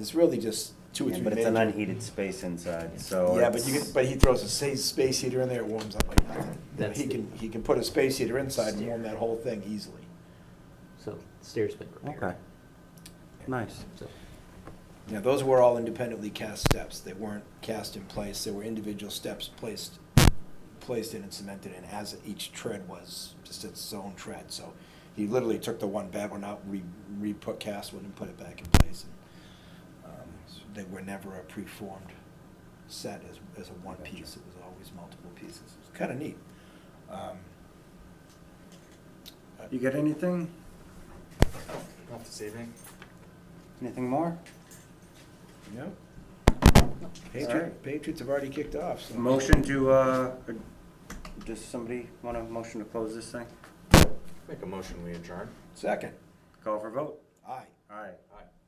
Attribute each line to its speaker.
Speaker 1: It's really just two or
Speaker 2: Yeah,
Speaker 1: three.
Speaker 2: But it's an
Speaker 1: major-
Speaker 2: unheated space inside, so.
Speaker 1: Yeah, but you
Speaker 2: it's-
Speaker 1: can, but he throws a sa- space heater in there, it warms up like nothing. You know,
Speaker 3: That's
Speaker 1: He
Speaker 3: the-
Speaker 1: can, he can put a space heater inside and warm that whole thing easily.
Speaker 3: So stairs been repaired.
Speaker 2: Okay. Nice.
Speaker 3: So,
Speaker 1: Yeah, those were all independently cast steps. They weren't cast in place. They were individual steps placed, placed in and cemented in as each tread was just its own tread. So he literally took the one bad one out, re, re-put cast one and put it back in place. And um, They were never a preformed set as, as a one piece. It was always multiple pieces. It was kind of neat. Um,
Speaker 2: You got anything?
Speaker 4: Not this evening.
Speaker 2: Anything more?
Speaker 1: Yeah.
Speaker 2: All right.
Speaker 1: Patriots, Patriots have already kicked off, so.
Speaker 2: Motion to, uh, or- does somebody want a motion to close this thing?
Speaker 4: Make a motion, we adjourn.
Speaker 1: Second.
Speaker 2: Call for vote?
Speaker 1: Aye.
Speaker 2: All right.
Speaker 4: Aye.